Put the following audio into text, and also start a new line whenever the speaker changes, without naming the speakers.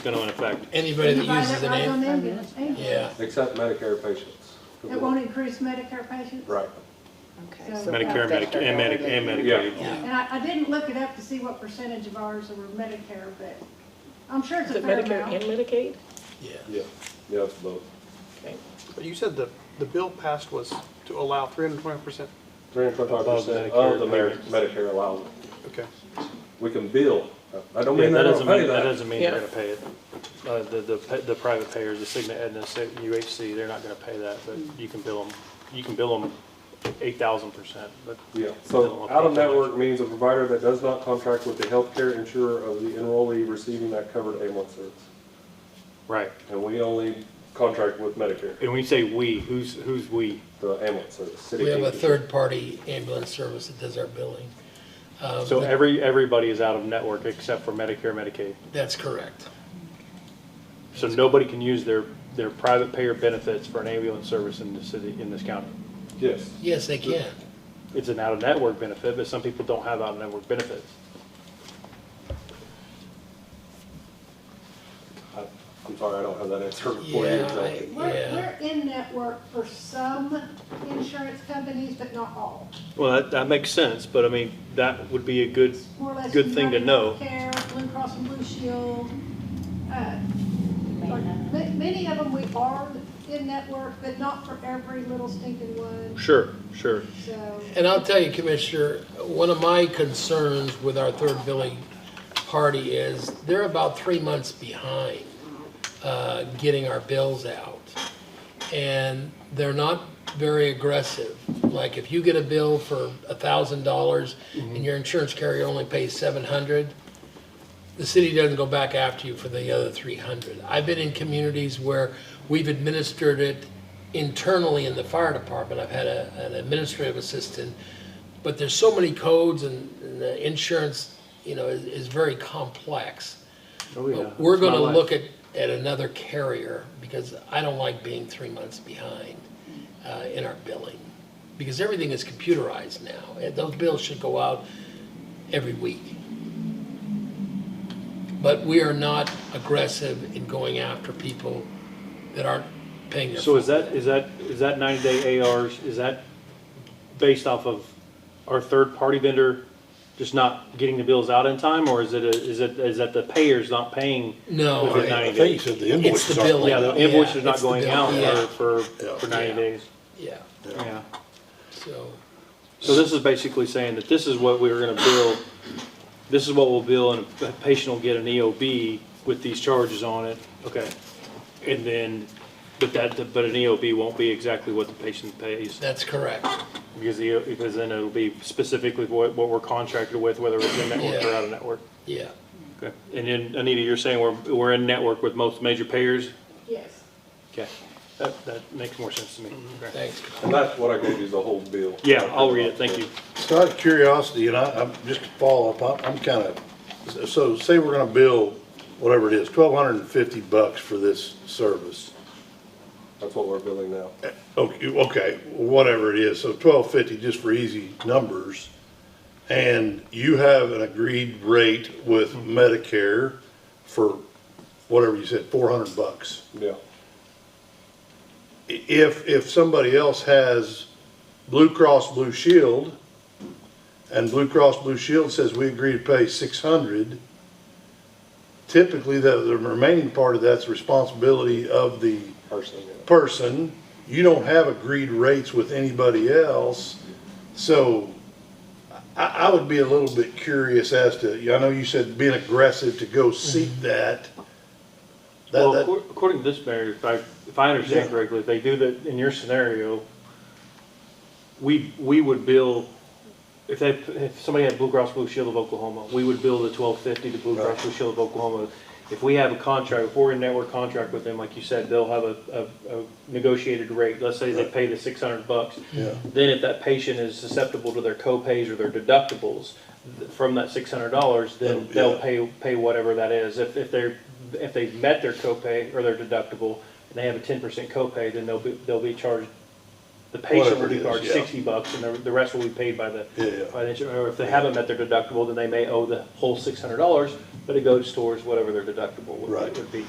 gonna affect.
Anybody that uses an
Right on
ambulance,
the ambulance, ambulance.
yeah.
Except Medicare patients.
It won't increase Medicare patients?
Right.
Okay,
So-
so
Medicare,
that's
Medicare, and Medi- and
already-
Medicaid.
Yeah.
And I, I didn't look it up to see what percentage of ours were Medicare, but I'm sure it's
Is
a
it
fair
Medicare and
amount.
Medicaid?
Yeah.
Yeah, yeah, it's both.
Okay.
But you said the, the bill passed was to allow 320%,
Three and twenty-five percent
Above
of the
Medicare
Mer- Medicare allowance.
okay.
We can bill, I don't
Yeah,
mean
that
that I
doesn't
don't pay
mean, that
that.
doesn't mean they're
Yeah.
gonna pay it. Uh, the, the, pa- the private payers, the Cigna, Aetna, Ci- UHC, they're not gonna pay that, but you can bill them, you can bill them eight thousand percent, but.
Yeah,
they don't
so
wanna pay
out of
that much.
network means a provider that does not contract with the healthcare insurer of the enrollee receiving that covered ambulance service.
Right,
And we only contract with Medicare,
and when you say "we," who's, who's "we"?
the ambulance service, city.
We have a
agency.
third-party ambulance service that does our billing. Um,
So
but
every, everybody is out of network except for Medicare, Medicaid.
That's correct.
So nobody can use their, their private payer benefits for an ambulance service in the city, in this county.
Yes,
Yes, they can.
It's an out-of-network benefit, but some people don't have out-of-network benefits.
I- I'm sorry, I don't have that answer for you
Yeah,
exactly.
We're,
Yeah.
we're in network for some insurance companies, but not all.
Well, that, that makes sense, but I mean, that would be a good,
More or less.
Good thing to
United
know.
Healthcare, Blue Cross and Blue Shield. uh, are- ma- Many of them we are in network, but not for every little stinking one,
sure, sure.
so.
And I'll tell you, Commissioner, one of my concerns with our third billing party is they're about three months behind uh, getting our bills out. And they're not very aggressive. Like if you get a bill for a thousand dollars and your insurance carrier only pays seven hundred, the city doesn't go back after you for the other 300. I've been in communities where we've administered it internally in the fire department. I've had a, an administrative assistant, but there's so many codes and, and the insurance, you know, is, is very complex.
Oh, yeah.
But we're
It's my
gonna
life.
look at, at another carrier because I don't like being three months behind, uh, in our billing. Because everything is computerized now. and Those bills should go out every week. But we are not aggressive in going after people that aren't paying their.
So is that, is that, is that ninety-day ARs, is that based off of our third-party vendor just not getting the bills out in time, or is it, a- is it, is that the payers not paying
No,
within
I-
I
ninety
think you
days?
said the
it's the
invoices are.
billing.
Yeah, the invoice
Yeah,
is not
it's the
going
bill.
out
Yeah,
for, for, for
Yeah.
ninety days.
Yeah,
Yeah.
so,
So this is basically saying that this is what we were gonna bill, this is what we'll bill, and a patient will get an EOB with these charges on it, okay? And then, but that, but an EOB won't be exactly what the patient pays,
that's correct.
because the, because then it'll be specifically what, what we're contracted with, whether it's in network or
Yeah.
out of network.
Yeah,
Okay. And then, Anita, you're saying we're, we're in network with most major payers?
Yes.
Okay, that, that makes more sense to me. Okay.
thanks.
And that's what I gave you, is the whole bill.
Yeah, I'll read it, thank you.
So out of curiosity, and I, I'm just to follow up, I'm, I'm kind of, so say we're gonna bill whatever it is, twelve hundred and fifty bucks for this service.
That's what we're billing now.
Okay, okay, whatever it is, so twelve fifty just for easy numbers. And you have an agreed rate with Medicare for whatever you said, four hundred bucks.
Yeah,
if, if somebody else has Blue Cross Blue Shield, and Blue Cross Blue Shield says we agree to pay six hundred, typically the, the remaining part of that's responsibility of the
personally, yeah.
person. You don't have agreed rates with anybody else, so I, I would be a little bit curious as to, I know you said being aggressive to go seek that. That-
Well,
that-
accor- according to this, Mayor, if I, if I understand
Yeah.
correctly, if they do that in your scenario, we, we would bill, if they, if somebody had Blue Cross Blue Shield of Oklahoma, we would bill the twelve fifty to Blue Cross Blue Shield of Oklahoma. If we have a contract, if we're in network contract with them, like you said, they'll have a, a, a negotiated rate, let's say they pay the six hundred bucks.
Yeah.
Then if that patient is susceptible to their co-pays or their deductibles th- from that six hundred dollars, then
Yeah.
they'll pay, pay whatever that is. If, if they're, if they've met their copay or their deductible, and they have a ten percent copay, then they'll be, they'll be charged the patient will
Whatever it
be
is,
charged
yeah.
sixty bucks, and the, the rest will be paid by the,
Yeah, yeah.
by the, insurance. or if they haven't met their deductible, then they may owe the whole six hundred dollars, but it goes towards whatever their deductible would,
Right.
would be.